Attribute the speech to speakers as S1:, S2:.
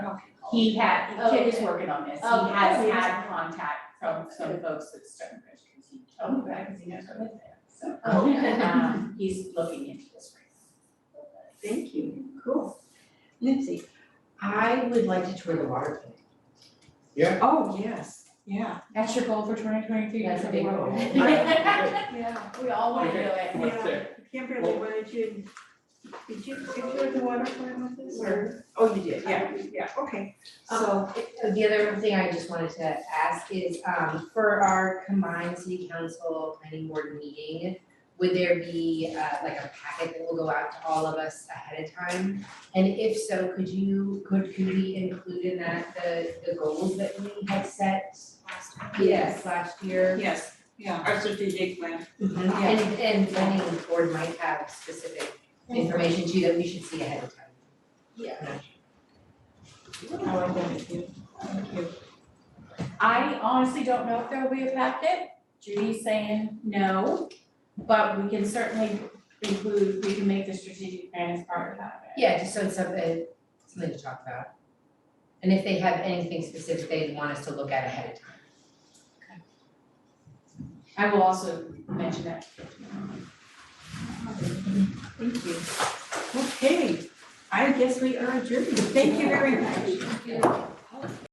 S1: He had, Kip is
S2: Okay.
S1: working on this,
S2: Okay.
S1: he has had contact from some folks at Stonebridge, because he told me, because he knows I live there, so.
S2: Okay.
S1: um, he's looking into this right
S3: Thank you, cool. Lindsay, I would like to tour the water plant.
S4: Yeah.
S3: Oh, yes, yeah.
S1: now. That's your goal for twenty twenty-three,
S3: That's a big goal.
S2: Yeah.
S1: We all wanna do it.
S4: What's that?
S3: Kimberly, what did you, did you, did you tour the water plant with us
S2: or-
S3: Oh, you did, yeah, yeah, okay.
S5: So Um, the other thing I just wanted to ask is, um, for our combined city council planning board meeting, would there be, uh, like a packet that will go out to all of us ahead of time? And if so, could you, could, could we include in that the, the goals that we had set yes, last year?
S3: Yes, yeah. Our strategic plan.
S5: Mhm. And, and planning board might have specific information too that we should see ahead of time.
S3: I like that, thank you. Thank you.
S1: I honestly don't know if there will be a packet, Judy's saying no, but we can certainly include, we can make the strategic plan as part of that.
S5: Yeah, just so it's something, something to talk about. And if they have anything specific they'd want us to look at ahead of time.
S1: I will also mention that.
S3: Thank you. Okay, I guess we are adjourned, thank you very much.